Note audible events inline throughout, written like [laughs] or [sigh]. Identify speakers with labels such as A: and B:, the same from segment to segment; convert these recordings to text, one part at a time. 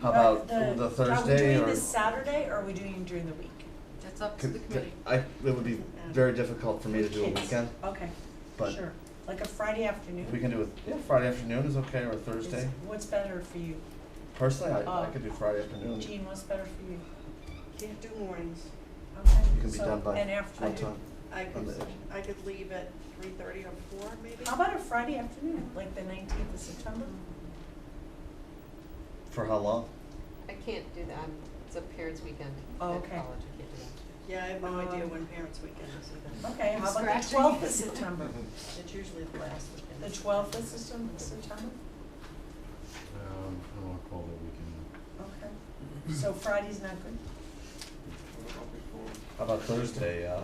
A: How about
B: Right,
A: the
B: Are we
A: Thursday
B: doing
A: or?
B: this Saturday or are we doing it during the week?
C: That's up to
A: could-
C: the committee.
A: I, it would be very difficult for me to do a
B: Kids.
A: weekend,
B: Okay,
A: but
B: sure, like a Friday afternoon.
A: if we can do it, yeah, Friday afternoon is okay, or
B: Is-
A: Thursday.
B: What's better for you?
A: Personally, I, I
B: Oh.
A: could do Friday afternoon. You
B: Jean, what's better for you?
D: Can't do mornings.
B: Okay,
A: can be
B: so-
A: done by
B: And after,
A: what time?
D: I
A: On the
D: could,
A: edge.
D: I could leave at three thirty or four maybe.
B: how about a Friday afternoon, like the nineteenth of September?
A: For how long?
C: I can't do that, I'm- it's a parents' weekend at
B: Oh,
C: college, I
B: okay.
C: can't do that.
D: Yeah, I have no idea
B: Um,
D: when parents' weekend is either.
B: Okay, how about the
C: Scratching.
B: twelfth of
A: [laughs]
B: September?
D: It's usually the last weekend.
B: The twelfth of Septem- September?
E: Um, I don't wanna call that weekend.
B: Okay, so Friday's not good.
A: How about Thursday, uh,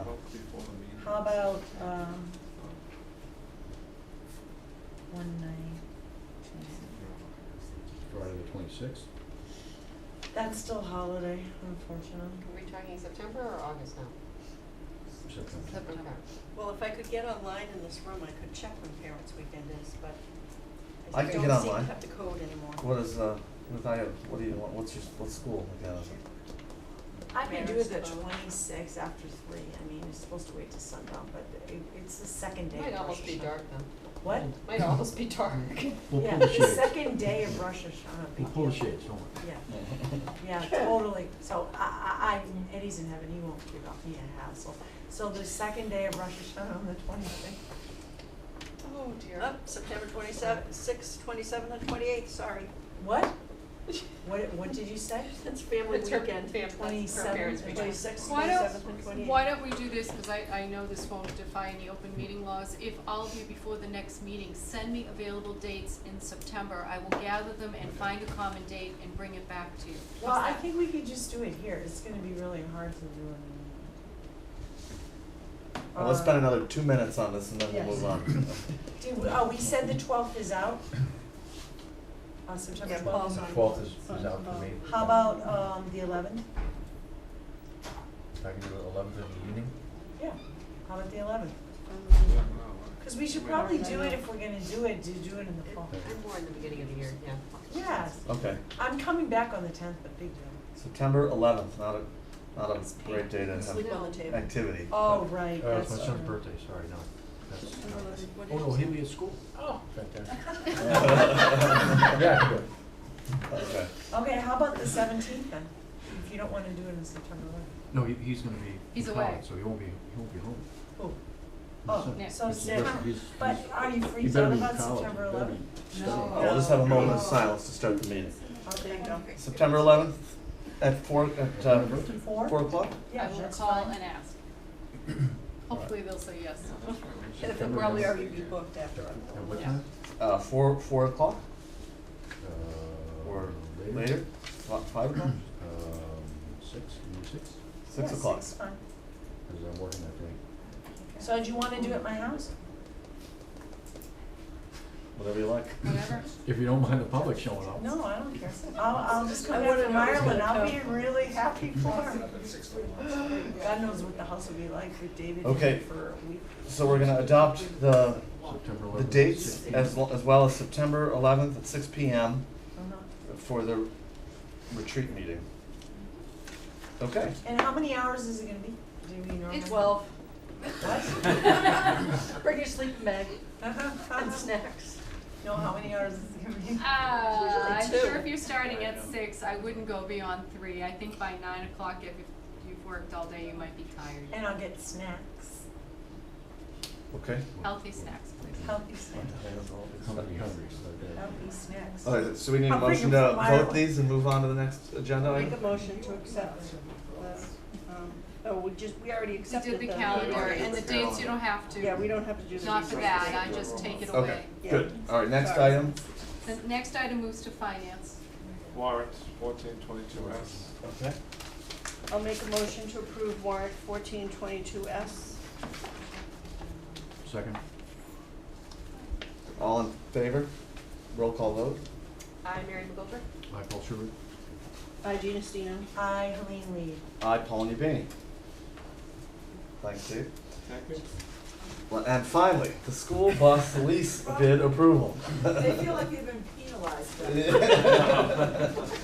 B: How about, um, one night, Tuesday?
E: Friday the twenty-sixth?
B: That's still holiday, unfortunately.
C: Are we talking September or August now?
E: September.
C: September.
D: Well, if I could get online in this room, I could check when parents' weekend is, but
A: I
D: I
A: can
D: don't
A: get
D: seem to
A: online.
D: have the code anymore.
A: what is, uh, what do you, what do you want, what's your, what's school, like, uh,
F: I can do the
D: Marysville.
F: twenty-sixth after three, I mean, you're supposed to wait till sundown, but it, it's the second day of Rosh
C: Might almost be
F: Hashanah.
C: dark then,
B: What?
C: might almost be
D: [laughs]
C: dark. [laughs]
E: We'll
F: Yeah,
E: pull the
F: the
E: shades,
B: [laughs]
F: second day of Rosh Hashanah.
E: we'll pull the shades, don't worry. [laughs]
F: Yeah, yeah, totally, so I, I, I, Eddie's in heaven, he won't give up me a hassle, so the second day of Rosh Hashanah on the twenty-sixth,
D: Oh dear, up September twenty-seventh, sixth, twenty-seventh and twenty-eighth, sorry.
C: [laughs]
B: What? What, what did you say?
D: It's family
C: It's her-
D: weekend.
C: fam- that's her
B: 27th
C: parents'
B: and
C: weekend.
D: Twenty-sixth,
G: Why don't-
D: twenty-seventh and twenty-eighth.
G: Why don't we do this, because I, I know this won't defy any open
H: Hmm.
G: meeting laws, if all of you before the next meeting, send me available dates in September, I will gather them and find a common date and bring it back to you. How's
B: Well, I
G: that?
B: think we could just do it here, it's gonna be really hard to do it. in-
A: Well, Oh, let's spend
B: Uh,
A: another two minutes on this and then we'll
B: Yes.
A: move on.
B: [laughs] Do, oh, we said the twelfth is out? On September
D: Yeah,
B: twelfth?
D: Paul's on.
H: Twelfth is, is out for me.
B: How about, um, the eleventh?
H: I can do it eleventh in the evening.
B: Yeah, how about the eleventh?
D: Um,
B: Cause we should probably do it if we're gonna do it, to do it in the fall.
C: I'm more in the beginning of the year, yeah.
B: Yes,
A: Okay,
B: I'm coming back on the tenth, but big deal.
A: September eleventh, not a, not a great day to have
D: Sleep on the table.
A: activity.
B: Oh, right,
E: Uh, it's
B: that's
E: my son's
B: true.
E: birthday, sorry, no. That's-
D: September eleventh, what
E: Oh,
D: did
E: no,
D: you
E: he'll
D: say?
E: be at school.
H: Oh. Fantastic.
G: Uh-huh.
H: [laughs]
A: Okay.
H: Yeah, I can do it.
B: Okay, how about the seventeenth then, if you don't wanna do it in September eleventh?
E: No, he, he's gonna be
G: He's
E: in
G: away.
E: college, so he won't be, he won't be home.
B: Oh,
E: My
B: oh,
E: son-
G: Yeah.
B: so
E: He's- he's-
B: September,
E: he's-
B: but
E: he's-
B: are you
E: he
B: freaked
E: better
B: out
E: be in
B: about
E: college.
B: September
E: He better
B: eleventh?
E: be
C: No.
A: We'll just have a moment of silence to start the meeting.
D: Oh,
B: Okay,
A: September eleventh at four, at, uh,
B: Four?
A: four o'clock?
B: Yeah,
G: I will
B: that's
G: call
B: fine.
G: and
H: [clears throat]
G: ask. Hopefully they'll say yes.
B: [laughs]
D: And if it
E: September
D: probably
E: eleventh.
D: already be booked after [laughs] I'm
E: At
D: gone.
E: what
G: Yeah.
E: time?
A: Uh, four, four o'clock
E: Uh,
A: or later? Fi- Five o'clock?
E: Um, six, maybe six,
A: Six
B: Yeah,
A: o'clock?
B: six, fine.
E: because I'm working that day.
B: So do you wanna do it at my house?
A: Whatever you like.
G: Whatever.
E: If you don't mind the public showing up.
B: No, I don't care, I'll, I'll just come
D: I
B: down
D: wouldn't
B: from
D: know it was
B: Ireland,
D: gonna
B: I'll be really
D: [laughs]
B: happy for her. God knows what the house will be like with David in
A: Okay.
B: it for a week.
A: So we're gonna adopt the,
E: September
A: the
E: eleventh.
A: dates as, lo- as well as September eleventh at six P M.
B: Uh-huh.
A: for the retreat meeting. Okay.
B: And how many hours is it gonna be? Do you normally? [laughs]
D: It's twelve.
B: What?
G: [laughs]
D: Bring your sleeping bag and
B: No,
D: snacks.
B: how many hours is it gonna be?
G: Uh,
D: usually
G: I'm
D: two.
G: sure if you're starting at six, I wouldn't go beyond three, I think by nine o'clock, if if you've worked all day, you might be tired.
B: And I'll get snacks,
A: Okay.
G: Healthy snacks, please.
B: healthy snacks,
E: I'm gonna be hungry, so.
B: healthy snacks.
A: All right, so we need a
B: I'll bring
A: motion
B: them
A: to
B: from
A: vote
B: Ireland.
A: these and move on to the next agenda
D: Make a
A: item?
D: motion to accept. the, um, Oh, we just, we already
G: We
D: accepted the.
G: did the calendar
D: meeting.
G: and the dates you don't have to.
D: Yeah, we don't have to do the.
G: Not for
D: resources.
G: that, I just take it
A: Okay,
G: away.
D: Yeah.
A: good. All right, next
D: Sorry.
A: item.
G: The next item moves to finance.
I: Warrant fourteen twenty-two S.
A: Okay.
D: I'll make a motion to approve warrant fourteen twenty-two S.
E: Second.
A: All in favor? Roll call vote?
C: I, Mary McGoldrick?
E: Michael Schubert.
D: By Gina Stino.
B: I, Helene Lee.
A: Aye, Paul Nubini. Thanks, Steve.
I: Thank you.
A: Well, And finally, the school bus lease bid approval. [laughs]
D: [laughs]
F: they feel like they've been penalized, though.